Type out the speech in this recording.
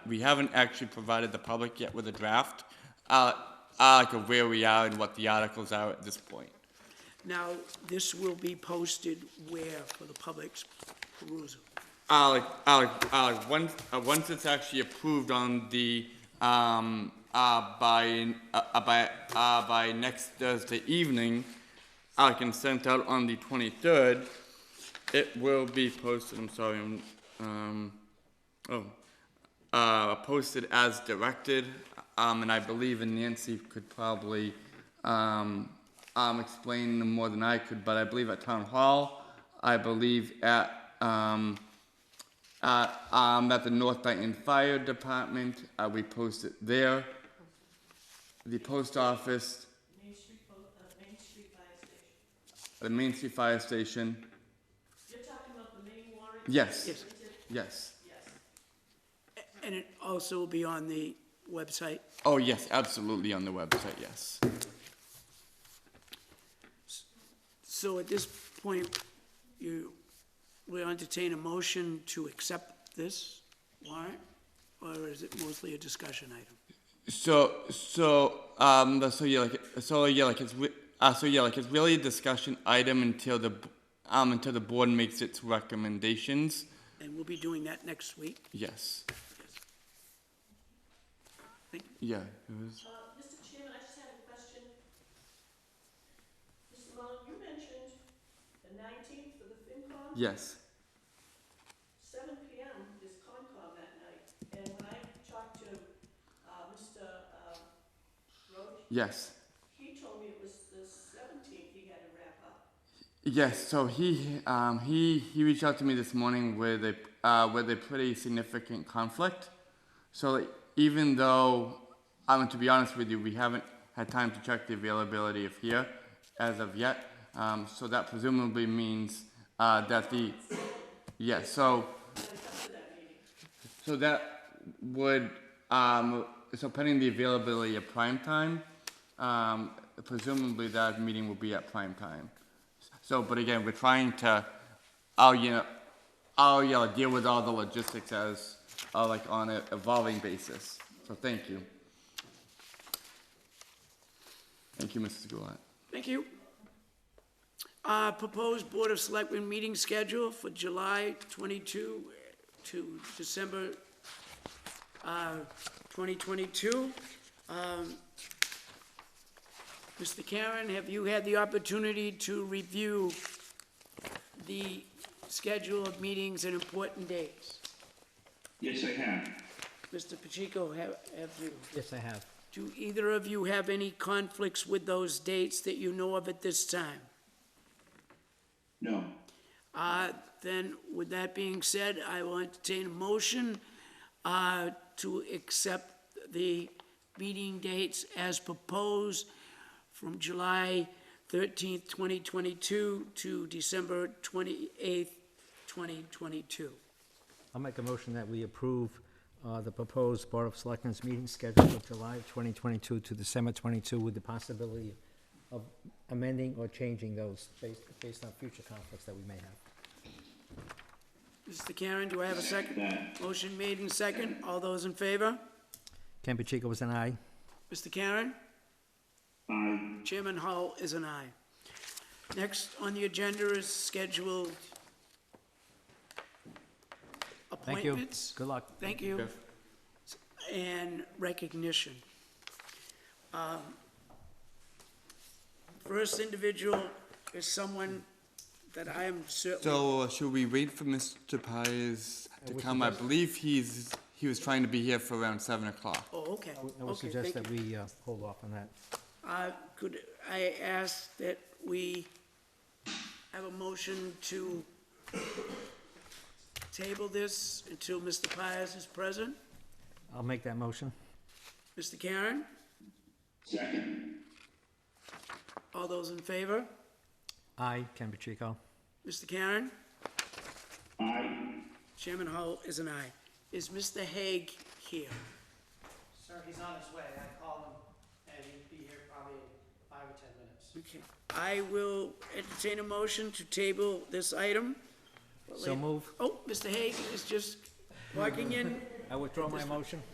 we haven't actually provided the public yet with a draft, uh, article where we are and what the articles are at this point. Now, this will be posted where for the public's perusal? Alec, Alec, Alec, once, uh, once it's actually approved on the, um, uh, by, uh, uh, by, uh, by next Thursday evening, Alec, and sent out on the twenty-third, it will be posted, I'm sorry, I'm, um, oh, uh, posted as directed, um, and I believe and Nancy could probably, um, um, explain them more than I could, but I believe at town hall, I believe at, um, uh, um, at the North Dayton Fire Department, uh, we post it there. The post office, Main Street, Bo- uh, Main Street Fire Station. the Main Street Fire Station, You're talking about the main warrant? yes, Yes. yes. Yes. And it also will be on the website? Oh, yes, absolutely on the website, yes. So at this point, you, we entertain a motion to accept this warrant? Or is it mostly a discussion item? So, so, um, the- so yeah, like, so yeah, like it's, re- uh, so yeah, like it's really a discussion item until the, b- um, until the board makes its recommendations, And we'll be doing that next week? yes. Thank Yeah, it was, Uh, Mr. Chairman, I just had a question. Mr. Mullin, you mentioned the nineteenth for the FinCom, yes, seven P M is Concom that night. And when I talked to, uh, Mr. uh, Roach, yes. he told me it was the seventeenth he had to wrap up. Yes, so he um, he he reached out to me this morning with a uh, with a pretty significant conflict. So like, even though, I mean, to be honest with you, we haven't had time to check the availability of here as of yet. Um, so that presumably means uh, that the yeah. So so that would um, so pending the availability of prime time, um, presumably that meeting will be at prime time. So, but again, we're trying to, oh, you know, oh, yeah, like, deal with all the logistics as, uh, like, on an evolving basis. So thank you. Thank you, Mrs. Goulet. Thank you. Uh, proposed Board of Selectmen meeting schedule for July twenty-two to December, uh, twenty twenty-two. Mr. Karen, have you had the opportunity to review the schedule of meetings and important dates? Yes, I have. Mr. Pacheco, have, have you? Yes, I have. Do either of you have any conflicts with those dates that you know of at this time? No. Uh, Then, with that being said, I will entertain a motion uh, to accept the meeting dates as proposed from July 13th, 2022 to December 28th, 2022. I'll make a motion that we approve uh, the proposed Board of Selectmen's meeting schedule of July 2022 to December 22 with the possibility of amending or changing those based based on future conflicts that we may have. Mr. Karen, do I have a second? That, Motion made and second. All those in favor? Ken Pacheco was an aye. Mr. Karen? I, Chairman Hull is an aye. Next on the agenda is scheduled Thank you. appointments. Good luck. Thank you. And recognition. Um, First individual is someone that I am certainly, So, uh, should we wait for Mr. Pies to come? I believe he's, he was trying to be here for around seven o'clock. oh, okay, I would okay, suggest thank you. that we uh, hold off on that. Uh, Could I ask that we have a motion to table this until Mr. Pius is present? I'll make that motion. Mr. Karen, second, all those in favor? Aye, Ken Pacheco. Mr. Karen? I, Chairman Hull is an aye. Is Mr. Hague here? Sir, he's on his way. I called him, and he'd be here probably in five or 10 minutes. Okay. I will entertain a motion to table this item. So move. Oh, Mr. Hague is just walking in I withdraw my motion.